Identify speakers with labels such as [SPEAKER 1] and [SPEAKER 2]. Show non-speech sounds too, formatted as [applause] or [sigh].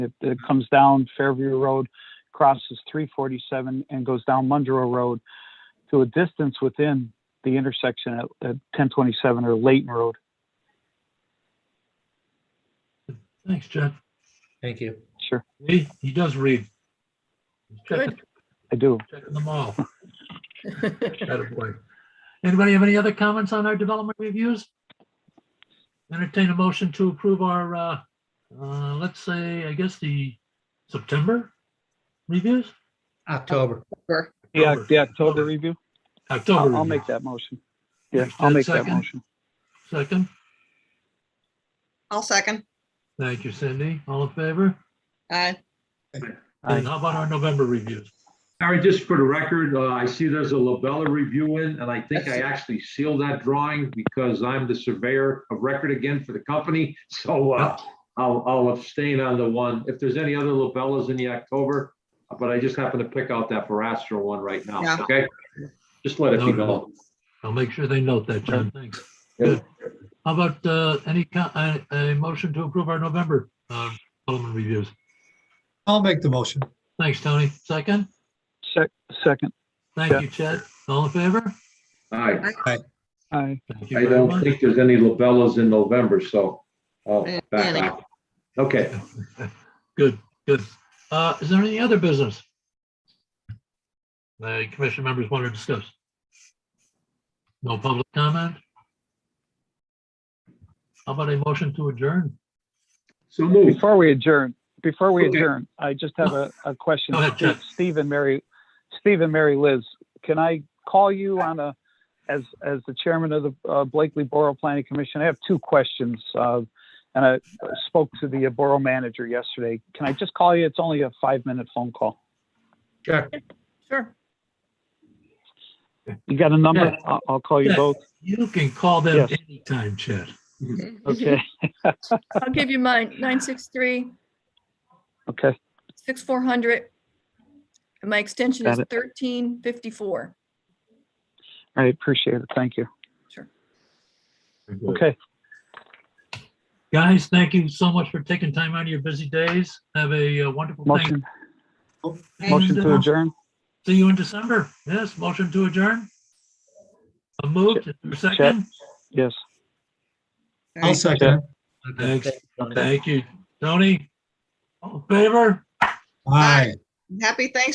[SPEAKER 1] It, it comes down Fairview Road, crosses three forty-seven and goes down Mundrow Road to a distance within the intersection at, at ten twenty-seven or Layton Road.
[SPEAKER 2] Thanks, Jeff.
[SPEAKER 3] Thank you.
[SPEAKER 1] Sure,
[SPEAKER 2] He, he does read. He's Checking
[SPEAKER 4] Good.
[SPEAKER 1] I do.
[SPEAKER 2] checking them all. Attaboy. Anybody have any other comments on our development reviews? Entertain a motion to approve our, uh, uh, let's say, I guess the September reviews?
[SPEAKER 3] October.
[SPEAKER 1] Yeah,
[SPEAKER 2] October.
[SPEAKER 1] the October review. I'll,
[SPEAKER 2] October.
[SPEAKER 1] I'll make
[SPEAKER 2] reviews.
[SPEAKER 1] that motion. Yeah,
[SPEAKER 2] Is there
[SPEAKER 1] I'll
[SPEAKER 2] a
[SPEAKER 1] make that
[SPEAKER 2] second?
[SPEAKER 1] motion.
[SPEAKER 2] Second.
[SPEAKER 4] I'll second.
[SPEAKER 2] Thank you, Cindy. All in favor?
[SPEAKER 4] Aye.
[SPEAKER 2] And how about our November reviews?
[SPEAKER 5] Harry, just for the record, uh, I see there's a Labella review in, and I think I actually sealed that drawing because I'm the surveyor of record again for the company. [laughs] So uh, I'll I'll abstain on the one. If there's any other Labellas in the October, but I just happen to pick out that Verastra one right
[SPEAKER 4] Yeah.
[SPEAKER 5] now, okay? Just let it be known.
[SPEAKER 2] I'll make sure they note that, John. Thanks.
[SPEAKER 5] Yeah.
[SPEAKER 2] Good. How about, uh, any, co- a, a motion to approve our November, uh, development reviews?
[SPEAKER 6] I'll make the motion.
[SPEAKER 2] Thanks, Tony. Second?
[SPEAKER 1] Sec, second, Yeah.
[SPEAKER 2] Thank you, Chad. All in favor?
[SPEAKER 5] All right.
[SPEAKER 1] I,
[SPEAKER 2] Thank you
[SPEAKER 5] I
[SPEAKER 2] very
[SPEAKER 5] don't
[SPEAKER 2] much.
[SPEAKER 5] think there's any Labellas in November, so I'll
[SPEAKER 4] Yeah,
[SPEAKER 5] back
[SPEAKER 4] any.
[SPEAKER 5] out. Okay,
[SPEAKER 2] Good, good. Uh, is there any other business? The commission members want to discuss? No public comment? How about a motion to adjourn?
[SPEAKER 5] so move.
[SPEAKER 1] Before we adjourn, before we
[SPEAKER 5] Okay.
[SPEAKER 1] adjourn, I just have a, a question.
[SPEAKER 2] Go ahead, Jeff.
[SPEAKER 1] Steve and Mary, Steve and Mary Liz, can I call you on a, as, as the chairman of the uh, Blakely Borough Planning Commission? I have two questions. uh, And I spoke to the uh, borough manager yesterday. Can I just call you? It's only a five-minute phone call.
[SPEAKER 3] Sure.
[SPEAKER 4] Sure.
[SPEAKER 1] You got a number?
[SPEAKER 2] Yeah.
[SPEAKER 1] I'll, I'll call you
[SPEAKER 2] Yeah.
[SPEAKER 1] both.
[SPEAKER 2] You can call them
[SPEAKER 1] Yes.
[SPEAKER 2] anytime, Chad.
[SPEAKER 1] Okay,
[SPEAKER 7] I'll give you mine, nine six three,
[SPEAKER 1] okay.
[SPEAKER 7] six four hundred. And my extension is
[SPEAKER 1] Got it.
[SPEAKER 7] thirteen fifty-four.
[SPEAKER 1] I appreciate it. Thank you. Okay.
[SPEAKER 2] Guys, thank you so much for taking time out of your busy days. Have a uh, wonderful thing.
[SPEAKER 1] Motion, motion
[SPEAKER 2] And,
[SPEAKER 1] to
[SPEAKER 2] uh,
[SPEAKER 1] adjourn?
[SPEAKER 2] See you in December. Yes, motion to adjourn. A move, second.
[SPEAKER 1] Yes.
[SPEAKER 6] I'll second.
[SPEAKER 2] Thanks. Thank you. Tony? All in favor?
[SPEAKER 6] Aye.
[SPEAKER 4] Happy Thanksgiving.